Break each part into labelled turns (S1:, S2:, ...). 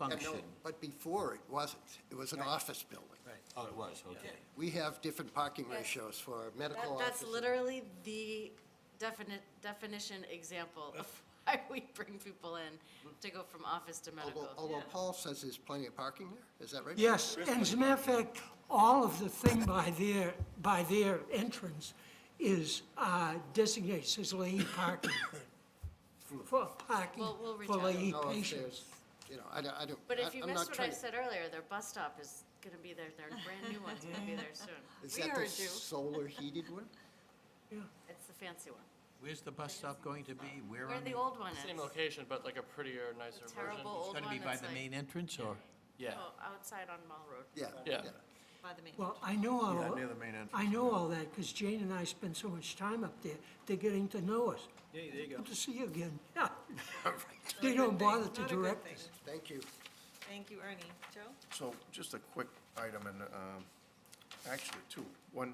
S1: Yeah, no,
S2: function.
S1: But before, it wasn't. It was an office building.
S2: Oh, it was, okay.
S1: We have different parking
S3: Yes.
S1: ratios for
S3: That,
S1: medical
S3: that's
S1: offices.
S3: literally the definite, definition example of why we bring people in to go from office to medical.
S1: Although, oh, although Paul says there's plenty of parking there, is that right?
S4: Yes, and as a matter of fact, all of the thing by their, by their entrance is uh, designated as lay parking. For parking,
S3: We'll- we'll reach
S4: for
S3: out.
S1: I don't
S4: lay
S5: Oh,
S1: know if
S4: patients.
S1: there's, you know, I don't, I don't.
S3: But if
S1: I-
S3: you
S1: I'm
S3: missed
S1: not
S3: what I
S1: trying-
S3: said earlier, their bus stop is gonna be there, their brand new one's gonna be there soon.
S1: Is
S6: We
S1: that the
S6: heard you.
S1: solar heated one?
S3: It's the fancy one,
S2: Where's the bus stop going to be? Where
S3: where
S2: on the?
S3: the old one is.
S7: Same location, but like a prettier, nicer
S3: The
S7: version.
S3: terrible old
S2: It's
S3: one
S2: gonna be by
S3: that's
S2: the
S3: like-
S2: main entrance, or?
S7: Yeah,
S3: Oh, outside on Mall Road.
S1: Yeah.
S7: yeah.
S6: by the main.
S4: Well, I know all.
S5: near the main entrance,
S4: I know all that, because Jane and I spend so much time up there, they're getting to know us.
S2: Yeah, there you go.
S4: Good to see you again. Yeah. They don't bother to
S6: Not a good
S4: direct
S6: thing.
S4: us.
S1: Thank you.
S6: Thank you, Ernie. Joe?
S5: So just a quick item, and um, actually two. One,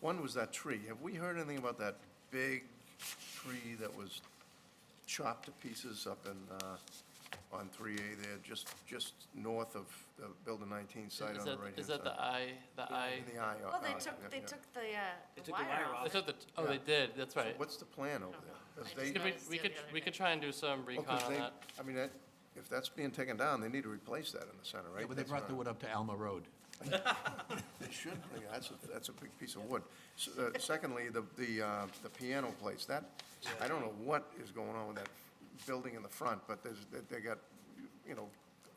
S5: one was that tree. Have we heard anything about that big tree that was chopped to pieces up in, uh, on 3A there, just, just north of the Building 19 site
S7: Is
S5: on the
S7: that,
S5: right-hand side?
S7: is that the eye, the eye?
S5: In the eye. uh,
S3: Well, they
S5: uh, yeah,
S3: took, they
S5: yeah.
S3: took the, uh, the
S8: took the
S3: wire
S8: wire
S3: off.
S7: I thought that, oh, they did, that's right.
S5: What's the plan over there? 'Cause
S3: I
S5: they-
S3: just
S7: Could we,
S3: noticed
S7: we
S3: it
S7: could,
S3: the other
S7: we could
S3: day.
S7: try and do some
S5: well,
S7: recon
S5: 'cause
S7: on
S5: they-
S7: that.
S5: I mean, that- if that's being taken down, they need to replace that in the center, right?
S2: Yeah, but they
S5: That's
S2: brought
S5: not-
S2: the wood up to Alma Road.
S5: They should bring, it. that's a, that's a big piece of wood. S- uh, Secondly, the, the, uh, the piano place, that, I don't know what is going on with that building in the front, but there's, they- they got, you know,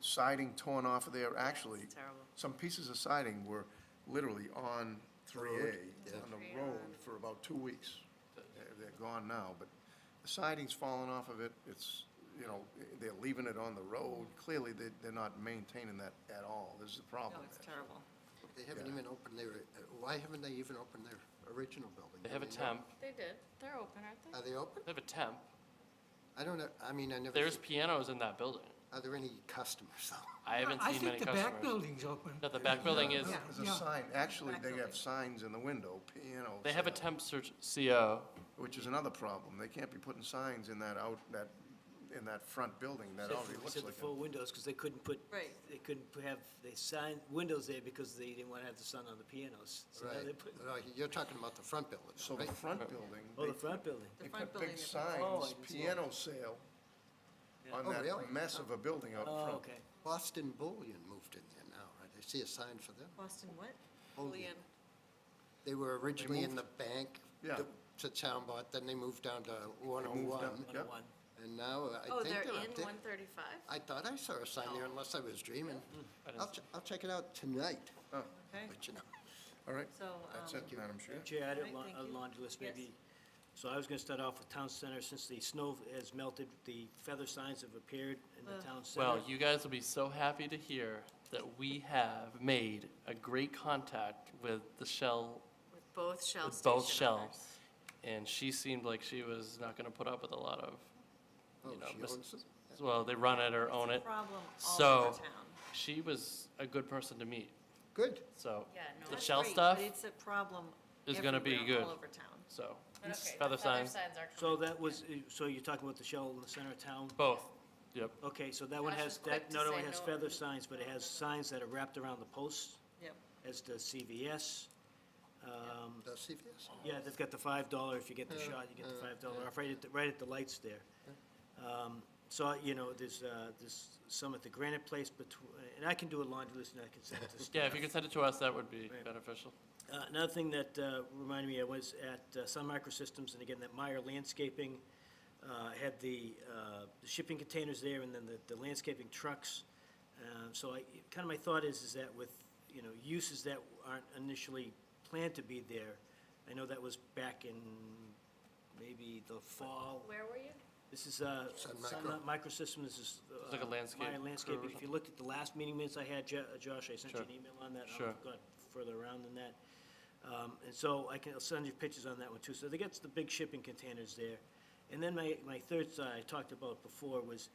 S5: siding torn off of there, actually.
S3: it's terrible.
S5: Some pieces of siding were literally on three A, on the road for about two weeks. They're- They're gone now, but the siding's fallen off of it, it's, you know, they're leaving it on the road. Clearly, they, they're not maintaining that at all, this is the
S6: No,
S5: problem.
S6: it's
S5: there.
S6: terrible.
S1: They haven't even opened their, uh, why haven't they even opened their original building?
S7: They have a
S1: I mean,
S7: temp,
S3: They did, they're open, aren't they?
S1: Are they open?
S7: they have a temp.
S1: I don't know, I mean, I never.
S7: There's
S1: see-
S7: pianos in that building.
S1: Are there any customers though?
S7: I haven't
S4: I
S7: seen
S4: think
S7: many
S4: the back
S7: customers.
S4: building's open.
S7: No, the back building is,
S4: Yeah.
S5: There's a sign, actually, they have signs in the window, piano.
S7: they have a temp search CO.
S5: Which is another problem, they can't be putting signs in that out, that, in that front building, that
S8: Except
S5: already
S8: for-
S5: looks
S8: except
S5: like
S8: the
S5: a.
S8: four windows, because they couldn't put,
S6: Right.
S8: they couldn't pu- have, they signed windows there because they didn't want to have the sun on the pianos. So now they
S1: Right,
S8: put,
S1: No, you're talking about the front building,
S5: So the
S1: right?
S5: front building,
S8: oh, the
S5: they,
S8: front building.
S6: The
S5: they
S6: front
S5: put
S6: building.
S5: big
S6: that-
S8: Oh, I
S5: signs,
S8: didn't see that.
S5: piano sale, on
S1: Oh, really?
S5: that mess of a building out front.
S8: Oh, okay.
S1: Boston Bullion moved in there now, right? I see a sign for them.
S6: Boston what?
S1: Bullion. They were originally in the bank.
S5: Yeah.
S1: to- To town, but then they moved down to
S5: down.
S1: 101,
S8: One
S5: Yeah.
S8: oh one.
S1: and now uh, I
S3: Oh,
S1: think
S3: they're
S1: they're
S3: in
S1: up there.
S3: one thirty-five?
S1: I thought I saw a sign there unless I was dreaming. I'll, ch- I'll check it out tonight,
S6: Okay,
S1: but you know.
S5: All right,
S6: so,
S5: that's
S6: um,
S5: it, Madam Chair.
S8: Chair, I had a
S6: Right,
S8: la-
S6: thank
S8: a
S6: you.
S8: laundry list,
S6: Yes.
S8: maybe. So I was going to start off with town center, since the snow has melted, the feather signs have appeared in the town center.
S7: Well, you guys will be so happy to hear that we have made a great contact with the Shell
S3: With both Shell
S7: with both
S3: station
S7: Shell.
S3: owners.
S7: And she seemed like she was not gonna put up with a lot of,
S1: Oh,
S7: you know,
S1: she
S7: mis-
S1: owns it?
S7: well, they run it or own
S6: it's a
S7: it.
S6: problem all over
S7: So,
S6: town.
S7: she was a good person to meet,
S1: Good.
S7: so.
S3: Yeah, no,
S7: The
S6: That's
S7: Shell
S6: great,
S7: stuff,
S6: But it's a problem
S7: is gonna be
S6: everywhere, all
S7: good.
S6: over town.
S7: so,
S3: But okay,
S7: feather
S3: the feather
S7: sign,
S3: signs are
S8: So
S3: coming.
S8: that was, uh, so you're talking about the shell in the center of town?
S7: both, yep.
S8: Okay, so that one
S3: Josh
S8: has,
S3: was quick
S8: that
S3: to
S8: not only
S3: say
S8: has
S3: no.
S8: feather signs, but it has signs that are wrapped around the posts,
S6: Yep.
S8: as does CVS. Um,
S1: Does CVS?
S8: Yeah, they've got the five dollar, if you get the shot, you get the five dollar off, right at, the- right at the lights there. Um, So, you know, there's, uh, there's some at the Granite Place between, and I can do a laundry list and I can send it to staff.
S7: Yeah, if you could send it to us, that would be beneficial.
S8: Uh, Another thing that uh, reminded me, I was at uh, Sun Microsystems, and again, that Meyer Landscaping uh, had the uh, the shipping containers there, and then the- the landscaping trucks. Uh, So I, kind of my thought is, is that with, you know, uses that aren't initially planned to be there, I know that was back in maybe the fall.
S3: Where were you?
S8: This is uh,
S1: Sun
S8: Sun
S1: Micro.
S8: Microsystem, this is. uh,
S7: It's like a landscape
S8: Meyer Landscaping.
S7: curve or
S8: If you looked at the last meeting minutes I had, Jo- uh, Josh, I sent you
S7: Sure.
S8: an email on that.
S7: Sure.
S8: I've got further around than that. Um, And so I can, I'll send you pictures on that one too. So they got the big shipping containers there. And then my, my third side I talked about before was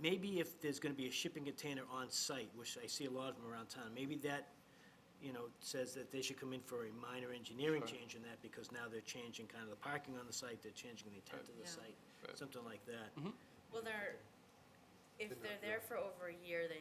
S8: maybe if there's gonna be a shipping container on site, which I see a lot of them around town, maybe that, you know, says that they should come in for a minor engineering change in that, because now they're changing kind of the parking on the site, they're changing the intent of the site, something like that.
S3: Well, there, if they're there for over a year, they